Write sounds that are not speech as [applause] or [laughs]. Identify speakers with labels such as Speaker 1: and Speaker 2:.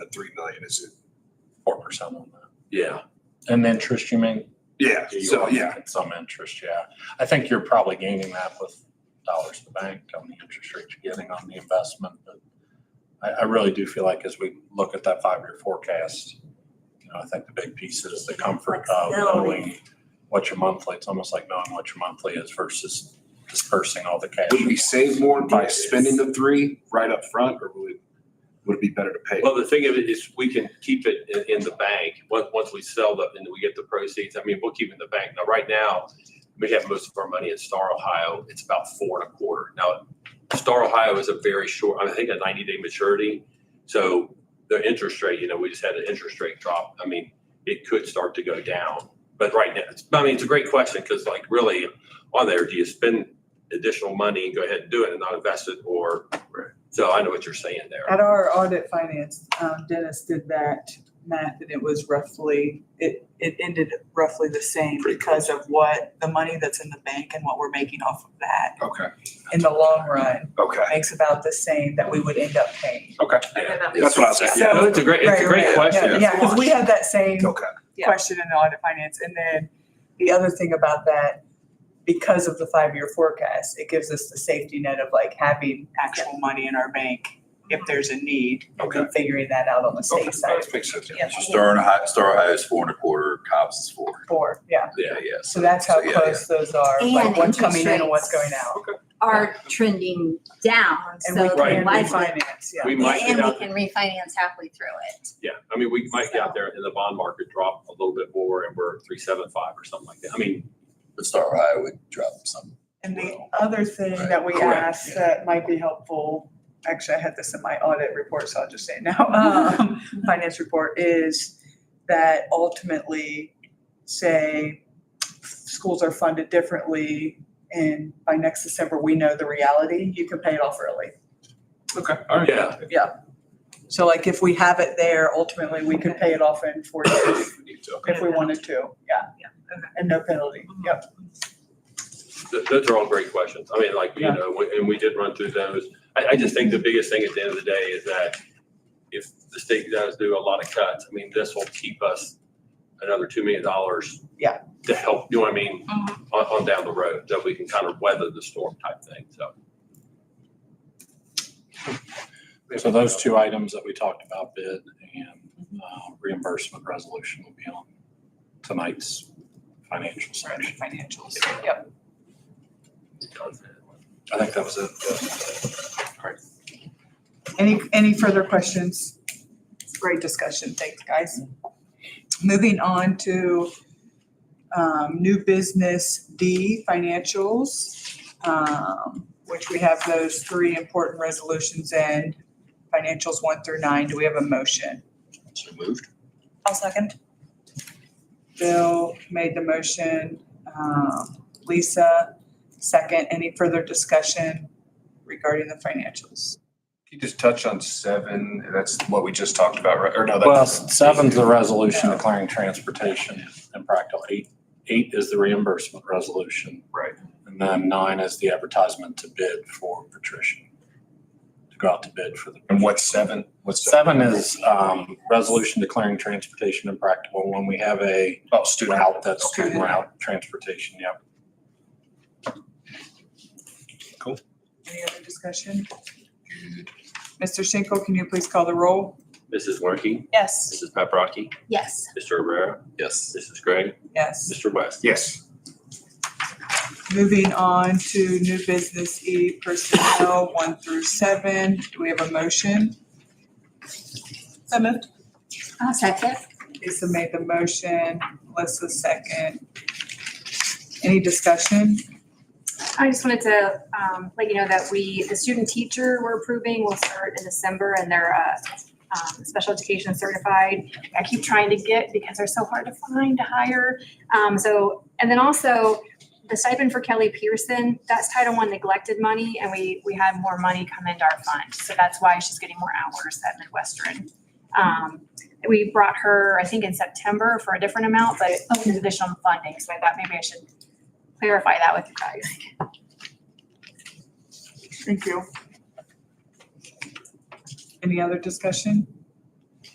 Speaker 1: at three million is it?
Speaker 2: four percent on that.
Speaker 1: Yeah.
Speaker 2: And interest, you mean?
Speaker 1: Yeah,
Speaker 2: You
Speaker 1: so,
Speaker 2: are
Speaker 1: yeah,
Speaker 2: making Some interest, yeah. I think you're probably gaining that with dollars to bank on the interest rate you're getting on the investment. But I, I really do feel like as we look at that five-year forecast, you know, I think the big piece is the comfort of knowing what your monthly, it's almost like knowing what your monthly is versus dispersing all the cash.
Speaker 1: would we save more by
Speaker 3: Yes.
Speaker 1: spending the three right up front, or would it, would it be better to pay?
Speaker 3: Well, the thing of it is, we can keep it in, in the bank, once, once we sell them and we get the proceeds, I mean, we'll keep it in the bank. Now, right now, we have most of our money in Star Ohio, it's about four and a quarter. Now, Star Ohio is a very short, I think a ninety day maturity, so the interest rate, you know, we just had an interest rate drop, I mean, it could start to go down. But right now, it's, I mean, it's a great question, because like really, on there, do you spend additional money and go ahead and do it and not invest it, or? So I know what you're saying there.
Speaker 4: At our audit finance, um, Dennis did that math and it was roughly, it, it ended roughly the same
Speaker 1: Pretty
Speaker 4: because of what, the money that's in the bank and what we're making off of that
Speaker 1: Okay,
Speaker 4: in the long run
Speaker 1: okay,
Speaker 4: makes about the same that we would end up paying.
Speaker 1: okay. That's what I was asking.
Speaker 3: Yeah, no, it's a great, it's a great
Speaker 4: Right, right. Yeah,
Speaker 3: question.
Speaker 4: Yeah, because we had that same
Speaker 1: Okay,
Speaker 5: Yeah.
Speaker 4: question in audit finance. And then the other thing about that, because of the five-year forecast, it gives us the safety net of like having actual money in our bank if there's a need. And then figuring that out on the
Speaker 1: okay,
Speaker 4: state side
Speaker 1: that makes sense.
Speaker 5: Yeah.
Speaker 6: So Star Ohio, Star Ohio is four and a quarter, Cobb's is four.
Speaker 4: for, yeah.
Speaker 6: Yeah, yeah.
Speaker 4: So that's how
Speaker 6: so, yeah,
Speaker 4: close those are, like
Speaker 5: And
Speaker 4: what's coming in
Speaker 5: interest
Speaker 4: and what's going
Speaker 5: rates.
Speaker 4: out.
Speaker 5: Are trending down, so
Speaker 4: And we
Speaker 5: they're
Speaker 4: can
Speaker 5: likely.
Speaker 4: refinance, yeah.
Speaker 3: We might get
Speaker 5: And we
Speaker 3: out,
Speaker 5: can refinance halfway through it.
Speaker 3: yeah, I mean, we might get out there and the bond market drop a little bit more and we're three seven five or something like that. I mean,
Speaker 6: But Star Ohio would drop some.
Speaker 4: And the other thing that we
Speaker 3: Correct,
Speaker 4: asked
Speaker 6: yeah.
Speaker 4: that might be helpful, actually, I had this in my audit report, so I'll just say it now, [laughs]
Speaker 5: [laughs]
Speaker 4: um, finance report, is that ultimately, say, schools are funded differently, and by next December, we know the reality, you can pay it off early.
Speaker 1: Okay, all right.
Speaker 3: yeah,
Speaker 4: So like, if we have it there, ultimately, we could pay it off in four years
Speaker 1: If we need to, okay.
Speaker 4: if we wanted to, yeah. Mm-hmm. And no penalty, yep.
Speaker 3: th- those are all great questions. I mean, like, you
Speaker 4: Yeah.
Speaker 3: know, we- and we did run through those. I, I just think the biggest thing at the end of the day is that if the state does do a lot of cuts, I mean, this will keep us another two million dollars.
Speaker 4: Yeah. Mm-hmm.
Speaker 3: To help, you know what I mean, on, on down the road, that we can kind of weather the storm type thing, so.
Speaker 2: So those two items that we talked about, bid and uh, reimbursement resolution will be on tonight's financial section.
Speaker 4: Financials, yep.
Speaker 2: I think that was it.
Speaker 4: Any, any further questions? Great discussion, thanks, guys. Moving on to um, new business D, financials, um, which we have those three important resolutions in, financials one through nine. Do we have a motion?
Speaker 6: So moved.
Speaker 4: I'll second. Bill made the motion, um, Lisa, second. Any further discussion regarding the financials?
Speaker 1: Can you just touch on seven? That's what we just talked about, right? Or no,
Speaker 2: Well,
Speaker 1: that's.
Speaker 2: seven's the resolution declaring transportation impractical. Eight, eight is the reimbursement resolution.
Speaker 1: Right.
Speaker 2: And then nine is the advertisement to bid for patrician, to go out to bid for the.
Speaker 1: And what's seven? What's seven?
Speaker 2: Seven is um, resolution declaring transportation impractical when we have a
Speaker 1: Oh, student.
Speaker 2: route, that's
Speaker 4: Okay.
Speaker 2: student route transportation, yep.
Speaker 4: Any other discussion? Mr. Schenkel, can you please call the roll?
Speaker 3: Mrs. Werke,
Speaker 4: Yes.
Speaker 3: Mrs. Paprocki,
Speaker 5: Yes.
Speaker 3: Mr. Rivera,
Speaker 6: Yes.
Speaker 3: Mrs. Gregg,
Speaker 4: Yes.
Speaker 3: Mr. West.
Speaker 1: Yes.
Speaker 4: Moving on to new business E personnel, one through seven. Do we have a motion? So moved.
Speaker 5: I'll second.
Speaker 4: Lisa made the motion. Melissa second. Any discussion?
Speaker 7: I just wanted to um, let you know that we, the student teacher we're approving will start in December and they're uh, um, special education certified. I keep trying to get because they're so hard to find to hire. Um, So, and then also the stipend for Kelly Pearson, that's Title I neglected money and we, we had more money come into our fund. So that's why she's getting more hours at Midwestern. Um, We brought her, I think in September for a different amount, but it was additional funding. So I thought maybe I should clarify that with you guys.
Speaker 4: Thank you. Any other discussion?